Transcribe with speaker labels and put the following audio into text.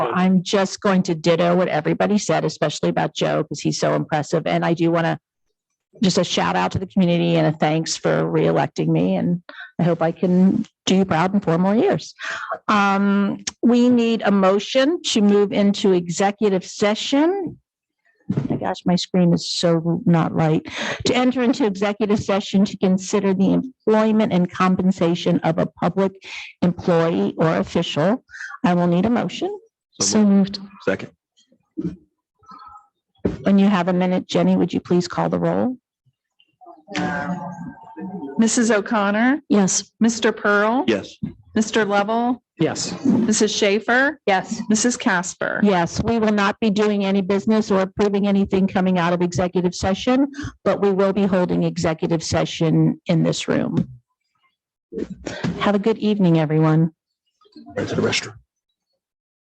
Speaker 1: I'm just going to ditto what everybody said, especially about Joe, because he's so impressive. And I do want to just a shout out to the community and a thanks for reelecting me. And I hope I can do you proud in four more years. Um, we need a motion to move into executive session. My gosh, my screen is so not right. To enter into executive session to consider the employment and compensation of a public employee or official. I will need a motion.
Speaker 2: So moved. Second.
Speaker 1: When you have a minute, Jenny, would you please call the roll?
Speaker 3: Mrs. O'Connor,
Speaker 2: Yes.
Speaker 3: Mr. Pearl,
Speaker 2: Yes.
Speaker 3: Mr. Lovell,
Speaker 2: Yes.
Speaker 3: Mrs. Schaefer,
Speaker 1: Yes.
Speaker 3: Mrs. Casper.
Speaker 1: Yes, we will not be doing any business or approving anything coming out of executive session, but we will be holding executive session in this room. Have a good evening, everyone.
Speaker 2: Right to the restroom.